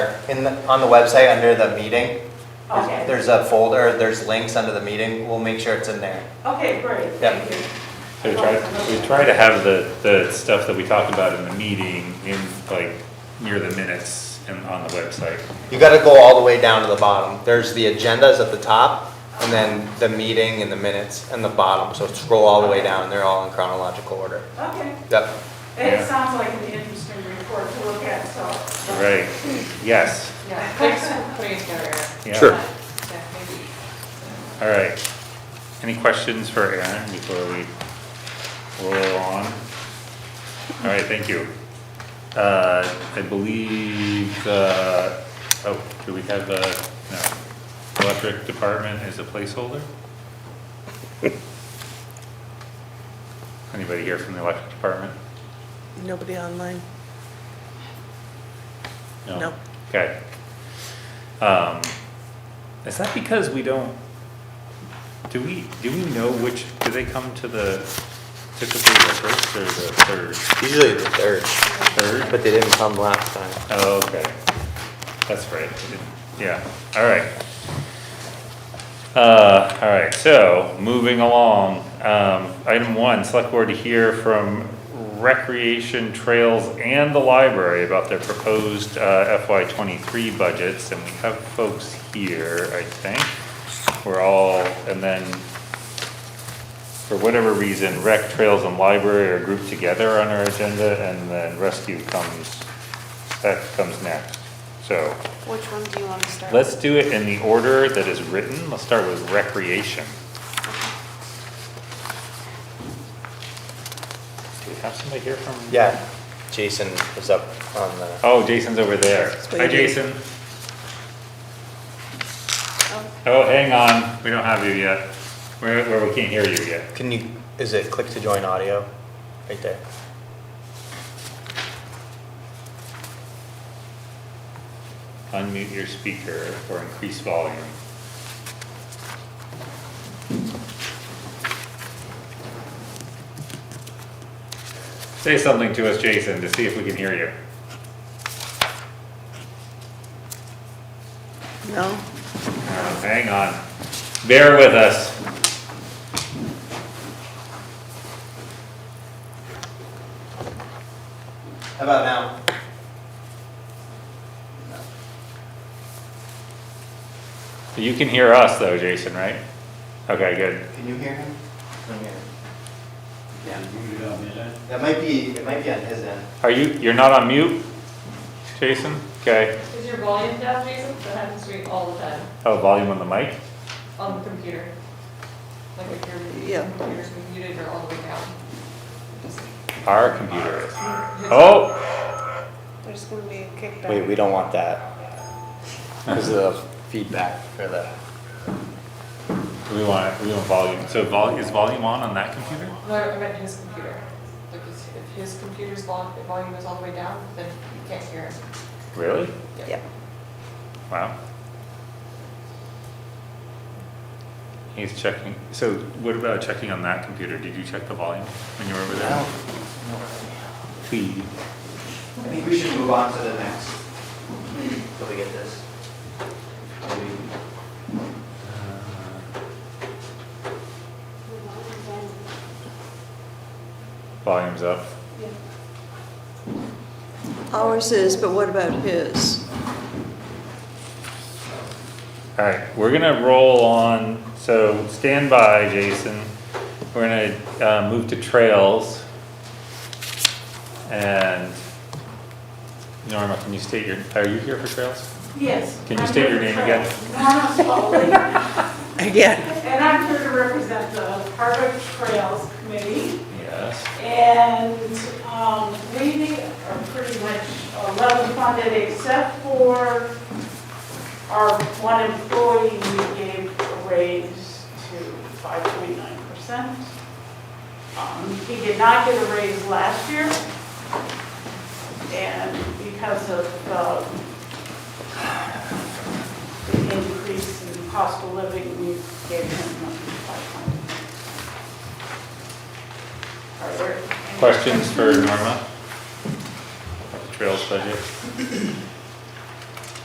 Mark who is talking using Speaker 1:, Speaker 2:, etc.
Speaker 1: In, the- on the website, under the meeting,
Speaker 2: Okay,
Speaker 1: there's a folder, there's links under the meeting, we'll make sure it's in there.
Speaker 2: okay, great,
Speaker 1: Yeah.
Speaker 2: thank you.
Speaker 3: We try, we try to have the, the stuff that we talked about in the meeting in, like, near the minutes and on the website.
Speaker 1: You gotta go all the way down to the bottom, there's the agendas at the top, and then the meeting and the minutes and the bottom, so scroll all the way down, they're all in chronological order.
Speaker 2: Okay,
Speaker 1: Yep,
Speaker 2: it
Speaker 3: Yeah.
Speaker 2: sounds like an interesting report to look at, so.
Speaker 3: Right, yes,
Speaker 4: Yeah, thanks for putting it together, Eric.
Speaker 3: yeah.
Speaker 1: Sure.
Speaker 4: Yeah, maybe.
Speaker 3: All right. Any questions for Aaron before we roll on? All right, thank you. Uh, I believe, uh, oh, do we have, uh, no, electric department is a placeholder? Anybody here from the electric department?
Speaker 5: Nobody online? No.
Speaker 3: Okay. Um, is that because we don't, do we, do we know which, do they come to the, typically the first or the third?
Speaker 1: usually the third,
Speaker 3: Third?
Speaker 1: but they didn't come last time.
Speaker 3: Oh, okay. That's right. Yeah, all right. Uh, all right, so moving along, um, item one, select board to hear from Recreation Trails and the library about their proposed uh, FY twenty-three budgets, and we have folks here, I think. We're all, and then for whatever reason, rec, trails, and library are grouped together on our agenda, and then rescue comes, that comes next. So,
Speaker 6: Which one do you want to start?
Speaker 3: let's do it in the order that is written, let's start with recreation. Do we have somebody here from?
Speaker 1: Yeah, Jason was up on the,
Speaker 3: Oh, Jason's over there. Hi,
Speaker 5: waving.
Speaker 3: Jason. Oh, hang on, we don't have you yet, where, where we can't hear you yet.
Speaker 1: can you, is it click to join audio? Right there.
Speaker 3: Unmute your speaker or increase volume. Say something to us, Jason, to see if we can hear you.
Speaker 5: No?
Speaker 3: Oh, Hang on, bear with us.
Speaker 1: How about now?
Speaker 3: You can hear us though, Jason, right? Okay, good.
Speaker 1: Can you hear him? Yeah.
Speaker 7: Muted up, is it?
Speaker 1: That might be, it might be on his end.
Speaker 3: Are you, you're not on mute, Jason? Okay,
Speaker 4: Is your volume down, Jason? That happens to me all the time
Speaker 3: oh, volume on the mic?
Speaker 4: on the computer. Like if your
Speaker 5: Yeah.
Speaker 4: computer's muted or all the way down.
Speaker 3: Our computer. Oh,
Speaker 6: There's going to be a kickback.
Speaker 1: Wait, we don't want that. Because of feedback for the.
Speaker 3: we want, we want volume, so vol, is volume on on that computer?
Speaker 4: No, I meant his computer. Like his- if his computer's vol- if volume is all the way down, then you can't hear him.
Speaker 3: Really?
Speaker 5: Yeah.
Speaker 3: Wow. He's checking, so what about checking on that computer? Did you check the volume when you were over there? Please.
Speaker 1: I think we should move on to the next. Till we get this.
Speaker 3: Volume's up.
Speaker 5: Ours is, but what about his?
Speaker 3: All right, we're gonna roll on, so stand by, Jason. We're gonna, uh, move to trails. And Norma, can you state your, are you here for trails?
Speaker 2: Yes.
Speaker 3: Can you
Speaker 2: I'm
Speaker 3: state your
Speaker 2: here
Speaker 3: name
Speaker 2: to-
Speaker 3: again?
Speaker 2: Norma Spaulding,
Speaker 5: Again.
Speaker 2: And I'm here to represent the Harvard Trails Committee.
Speaker 3: Yes.
Speaker 2: And um, we are pretty much uh, level funded except for our one employee we gave a raise to 5.9%. Um, He did not get a raise last year. And because of um, the increase in cost of living, we gave him 5.9%. Are there any
Speaker 3: Questions for Norma? Trails budget?